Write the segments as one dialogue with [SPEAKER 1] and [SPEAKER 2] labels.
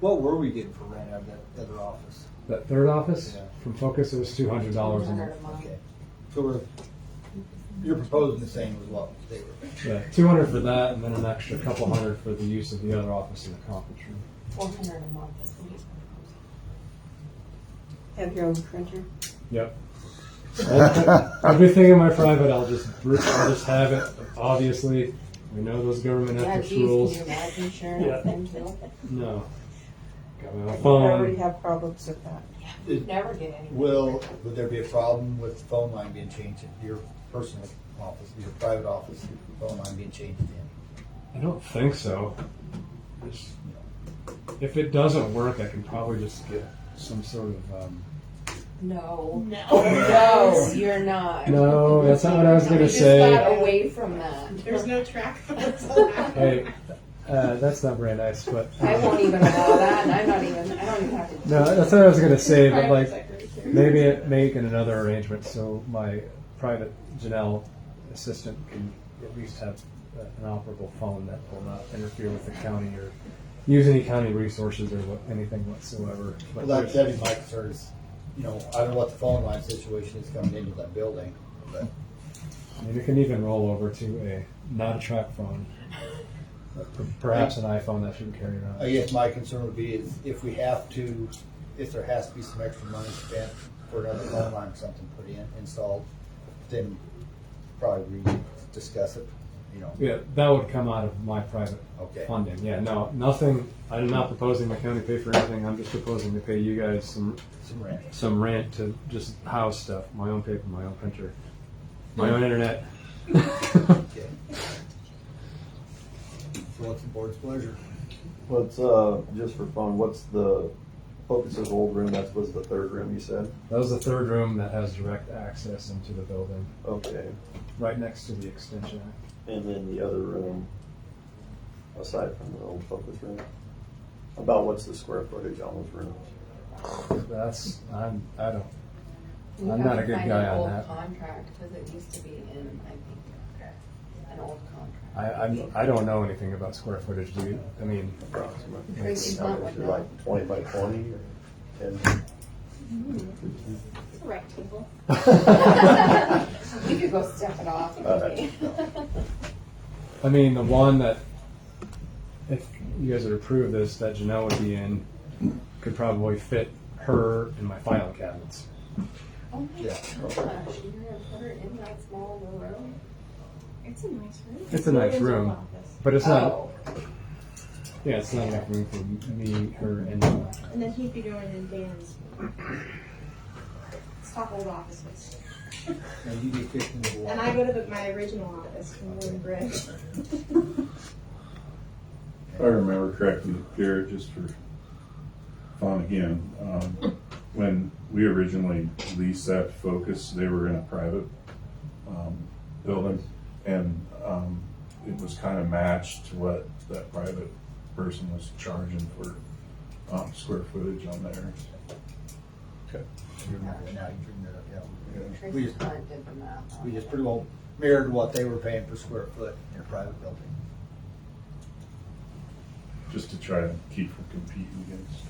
[SPEAKER 1] What were we getting for rent out of that other office?
[SPEAKER 2] That third office
[SPEAKER 1] Yeah.
[SPEAKER 2] from Focus, it was two hundred dollars a month.
[SPEAKER 1] Okay. So we're, you're proposing the same as what they were.
[SPEAKER 2] Yeah, two hundred for that, and then an extra couple hundred for the use of the other office in the conference room.
[SPEAKER 3] Four hundred a month is what he's
[SPEAKER 4] Have your own printer?
[SPEAKER 2] Yep. Everything in my private, I'll just I'll just have it. Obviously, we know those government
[SPEAKER 3] Yeah,
[SPEAKER 2] ethics
[SPEAKER 3] geez, can
[SPEAKER 2] rules.
[SPEAKER 3] you imagine sharing
[SPEAKER 2] Yeah.
[SPEAKER 3] a thing too?
[SPEAKER 2] No. Got my own
[SPEAKER 4] I already
[SPEAKER 2] phone.
[SPEAKER 4] have problems with that.
[SPEAKER 1] It-
[SPEAKER 3] Never get any.
[SPEAKER 1] Will, would there be a problem with the phone line being changed at your personal office, your private office, the phone line being changed in?
[SPEAKER 2] I don't think so. Just- If it doesn't work, I can probably just get some sort of. Um,
[SPEAKER 3] No. No. No, you're not.
[SPEAKER 2] no, that's not what I was
[SPEAKER 3] We
[SPEAKER 2] gonna
[SPEAKER 3] just got
[SPEAKER 2] say.
[SPEAKER 3] away from that.
[SPEAKER 5] There's no track. I
[SPEAKER 2] Hey, uh, that's not very nice, but. uh,
[SPEAKER 3] I won't even allow that, and I'm not even, I don't even have to.
[SPEAKER 2] No, that's what I was gonna say, but like, maybe it- make another arrangement so my private Janelle assistant can at least have uh, an operable phone that will not interfere with the county or use any county resources or what, anything whatsoever. But
[SPEAKER 1] Well, that, that'd be my concern is, you know, I don't know what the phone line situation is coming into that building, but
[SPEAKER 2] I mean, it can even roll over to a, not a track phone. but per- Perhaps an iPhone that shouldn't carry around.
[SPEAKER 1] I guess my concern would be is if we have to, if there has to be some extra money spent for another phone line or something put in, installed, then probably we discuss it, you know.
[SPEAKER 2] Yeah, that would come out of my private
[SPEAKER 1] Okay.
[SPEAKER 2] funding. Yeah, no, nothing. I'm not proposing my county pay for anything. I'm just proposing to pay you guys some
[SPEAKER 1] Some rent.
[SPEAKER 2] some rent to just house stuff. My own paper, my own printer, my own internet.
[SPEAKER 1] Okay. So what's the board's pleasure?
[SPEAKER 6] What's, uh, just for fun, what's the Focus's old room, that was the third room you said?
[SPEAKER 2] That was the third room that has direct access into the building,
[SPEAKER 6] Okay,
[SPEAKER 2] right next to the extension.
[SPEAKER 6] and then the other room, aside from the old Focus room? About what's the square footage on those rooms?
[SPEAKER 2] That's I'm I don't.
[SPEAKER 3] We
[SPEAKER 2] I'm
[SPEAKER 3] have
[SPEAKER 2] not
[SPEAKER 3] to
[SPEAKER 2] a good
[SPEAKER 3] find
[SPEAKER 2] guy
[SPEAKER 3] an
[SPEAKER 2] on
[SPEAKER 3] old
[SPEAKER 2] that.
[SPEAKER 3] Contract, because it used to be in, I think, an old contract.
[SPEAKER 2] I I'm, I don't know anything about square footage. Do you? I mean,
[SPEAKER 6] Approximately.
[SPEAKER 2] it's,
[SPEAKER 6] How much is it, like twenty by twenty or ten?
[SPEAKER 7] It's a rectangle.
[SPEAKER 3] We could go step it off.
[SPEAKER 6] All
[SPEAKER 2] Uh,
[SPEAKER 6] right.
[SPEAKER 2] I mean, the one that, if you guys would approve this, that Janelle would be in, could probably fit her in my filing cabinets.
[SPEAKER 3] Oh my
[SPEAKER 1] Yeah.
[SPEAKER 3] gosh, you're gonna put her in that small little room?
[SPEAKER 7] It's a nice room.
[SPEAKER 2] It's a nice
[SPEAKER 7] It's
[SPEAKER 2] room.
[SPEAKER 7] an office.
[SPEAKER 2] But it's not,
[SPEAKER 3] Oh,
[SPEAKER 2] yeah, it's not enough room for me, her, and uh,
[SPEAKER 7] And then he'd be going in Dan's. Let's talk old offices.
[SPEAKER 1] And you get fifteen to one.
[SPEAKER 7] And I go to the, my original office from Wood Bridge.
[SPEAKER 8] If I remember correctly, Jared, just for fun again, um, when we originally leased that Focus, they were in a private, um, building. And, um, it was kind of matched to what that private person was charging for, um, square footage on theirs.
[SPEAKER 1] You remember that Now you bring that up, yeah. We
[SPEAKER 3] Tracy
[SPEAKER 1] just,
[SPEAKER 3] Hunt did the math. on
[SPEAKER 1] we
[SPEAKER 3] it.
[SPEAKER 1] just pretty well mirrored what they were paying per square foot in a private building.
[SPEAKER 8] just to try to keep from competing against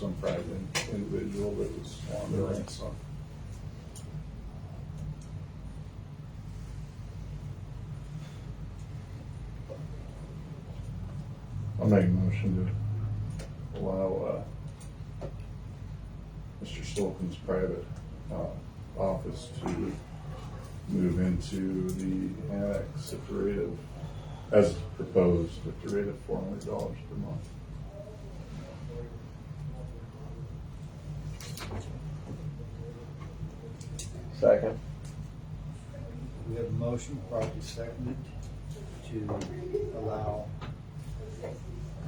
[SPEAKER 8] some private individual that was on the rent, so. I'll make a motion to allow, uh, Mr. Stolpin's private, uh, office to move into the annex at the rate of, as proposed, at the rate of four hundred dollars per month.
[SPEAKER 6] Second,
[SPEAKER 1] We have a motion, properly seconded, to allow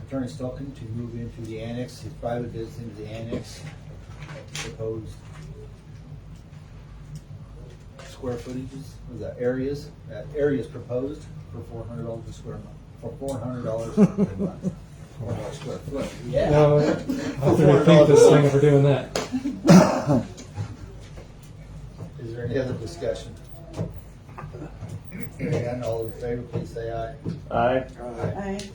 [SPEAKER 1] Attorney Stockton to move into the annex, his private business into the annex, proposed square footages, or the areas, uh, areas proposed for four hundred dollars a square month, for four hundred dollars per month. Four hundred square foot. Yeah.
[SPEAKER 2] no, I'll have to rethink this thing if we're doing that.
[SPEAKER 1] Is there any other discussion? Hearing none, all in favor, please say aye.
[SPEAKER 6] aye?
[SPEAKER 1] Aye.
[SPEAKER 4] I